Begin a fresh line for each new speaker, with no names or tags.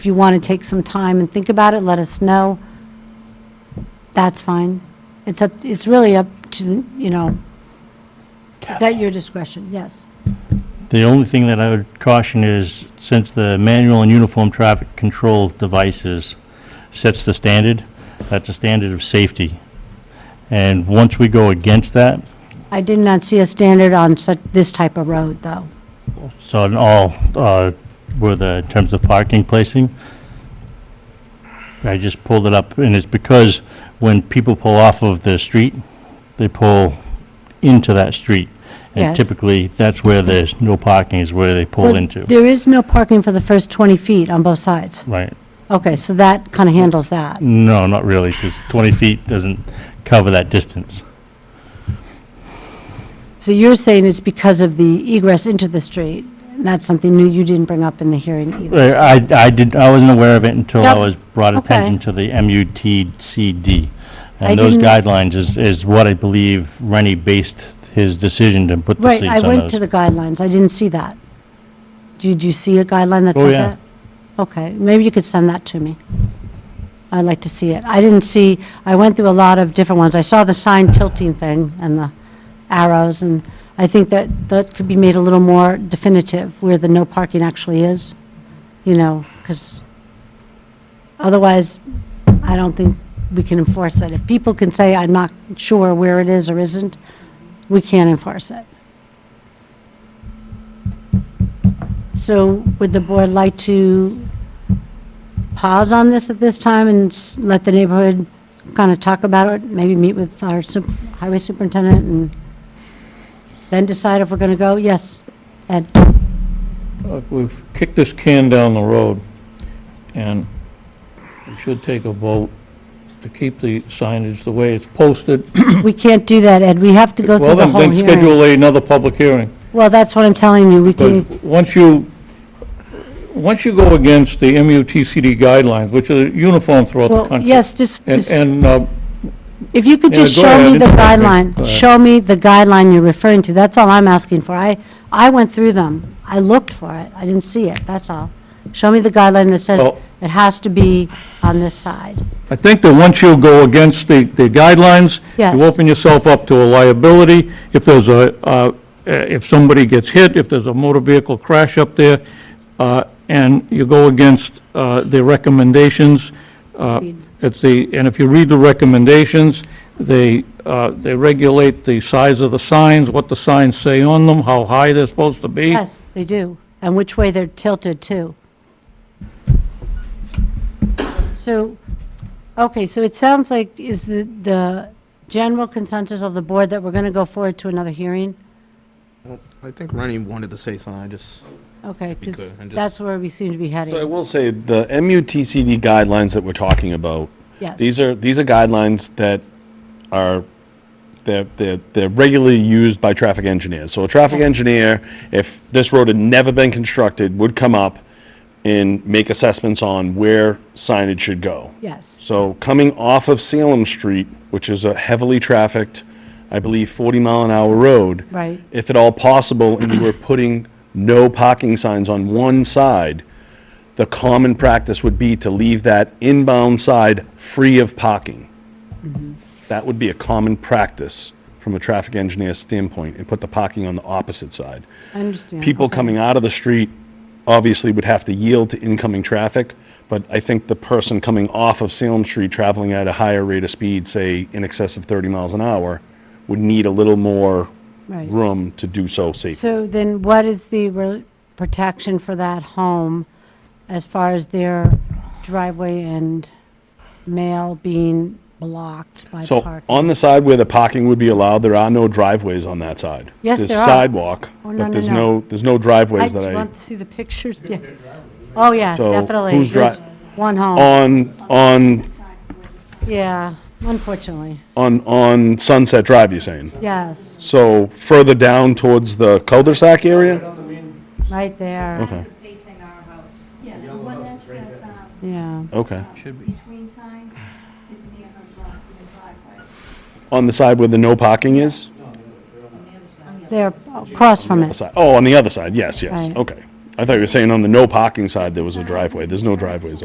If you want to take some time and think about it, let us know. That's fine. It's up, it's really up to, you know, it's at your discretion, yes.
The only thing that I would caution is, since the manual and uniform traffic control devices sets the standard, that's a standard of safety. And once we go against that,
I did not see a standard on such, this type of road, though.
so in all, uh, were the, in terms of parking placing, I just pulled it up, and it's because when people pull off of the street, they pull into that street. And
Yes.
typically, that's where there's no parking, is where they pull
Well,
into,
There is no parking for the first 20 feet on both sides.
right?
Okay, so that kind of handles that.
No, not really, because 20 feet doesn't cover that distance.
So you're saying it's because of the egress into the street, and that's something new you didn't bring up in the hearing
Uh,
either.
I, I didn't, I wasn't aware of it until I
Yep.
was brought
Okay.
attention to the MUTCD.
I
And those
didn't-
guidelines is, is what I believe Rennie based his decision to put the
Right,
seats
I
on those.
went to the guidelines, I didn't see that. Did you see a guideline that
Oh,
said
yeah.
that? Okay, maybe you could send that to me. I'd like to see it. I didn't see, I went through a lot of different ones. I saw the sign tilting thing and the arrows, and I think that that could be made a little more definitive where the no parking actually is, you know, because otherwise, I don't think we can enforce it. If people can say, I'm not sure where it is or isn't, we can't enforce it. So would the board like to pause on this at this time and s- let the neighborhood kind of talk about it? Maybe meet with our sup- highway superintendent and then decide if we're going to go? Yes, Ed?
Look, we've kicked this can down the road, and we should take a vote to keep the signage the way it's posted.
We can't do that, Ed. We have to go through
Well,
the
then,
whole
then
hearing.
schedule another public hearing.
Well, that's what I'm telling you. We
Because
can,
once you, once you go against the MUTCD guidelines, which are uniform throughout the
well,
country.
yes, just,
And,
just-
and, uh,
if you could
yeah,
just
go
show
ahead.
me the
It's okay. Go
guideline.
ahead.
Show me the guideline you're referring to. That's all I'm asking for. I, I went through them. I looked for it. I didn't see it, that's all. Show me the guideline that says
Well-
it has to be on this side.
I think that once you go against the, the guidelines,
Yes.
you open yourself up to a liability. If there's a, uh, if somebody gets hit, if there's a motor vehicle crash up there, uh, and you go against uh, the recommendations, uh, it's the, and if you read the recommendations, they, uh, they regulate the size of the signs, what the signs say on them, how high they're supposed to be.
Yes, they do, and which way they're tilted too. So, okay, so it sounds like is the, the general consensus of the board that we're going to go forward to another hearing?
I think Rennie wanted to say something, I just.
Okay, because
clear, and just-
that's where we seem to be
So I
heading,
will say, the MUTCD guidelines that we're talking about,
yes.
these are, these are guidelines that are, they're, they're, they're regularly used by traffic engineers. So a traffic
Yes.
engineer, if this road had never been constructed, would come up and make assessments on where signage should go.
Yes,
So coming off of Salem Street, which is a heavily trafficked, I believe, 40 mile an hour road.
Right.
If at all possible, and you were putting no parking signs on one side, the common practice would be to leave that inbound side free of parking.
Mm-hmm.
That would be a common practice from a traffic engineer's standpoint, and put the parking on the opposite side.
I understand.
People
okay.
coming out of the street obviously would have to yield to incoming traffic, but I think the person coming off of Salem Street traveling at a higher rate of speed, say in excess of 30 miles an hour, would need a little more
Right.
room to do so safely.
So then what is the re- protection for that home as far as their driveway and mail being blocked by
So
parking?
on the side where the parking would be allowed, there are no driveways on that side.
Yes, there are.
There's sidewalk,
Oh, no, no,
but there's
no.
no, there's no driveways that
I
I,
want to see the pictures, yeah. Oh, yeah,
So
definitely.
who's dri-
There's One home,
on, on,
yeah, unfortunately,
on, on Sunset Drive, you're saying?
yes,
So further down towards the cul-de-sac area?
right there,
Okay,
facing our house.
Yeah, the one that says, um,
yeah.
okay.
between signs is near her block, in the driveway.
On the side where the no parking is?
They're across from it,
Aside- Oh, on the other side, yes, yes,
Right.
okay. I I thought you were saying on the no parking side, there was a driveway. There's no driveways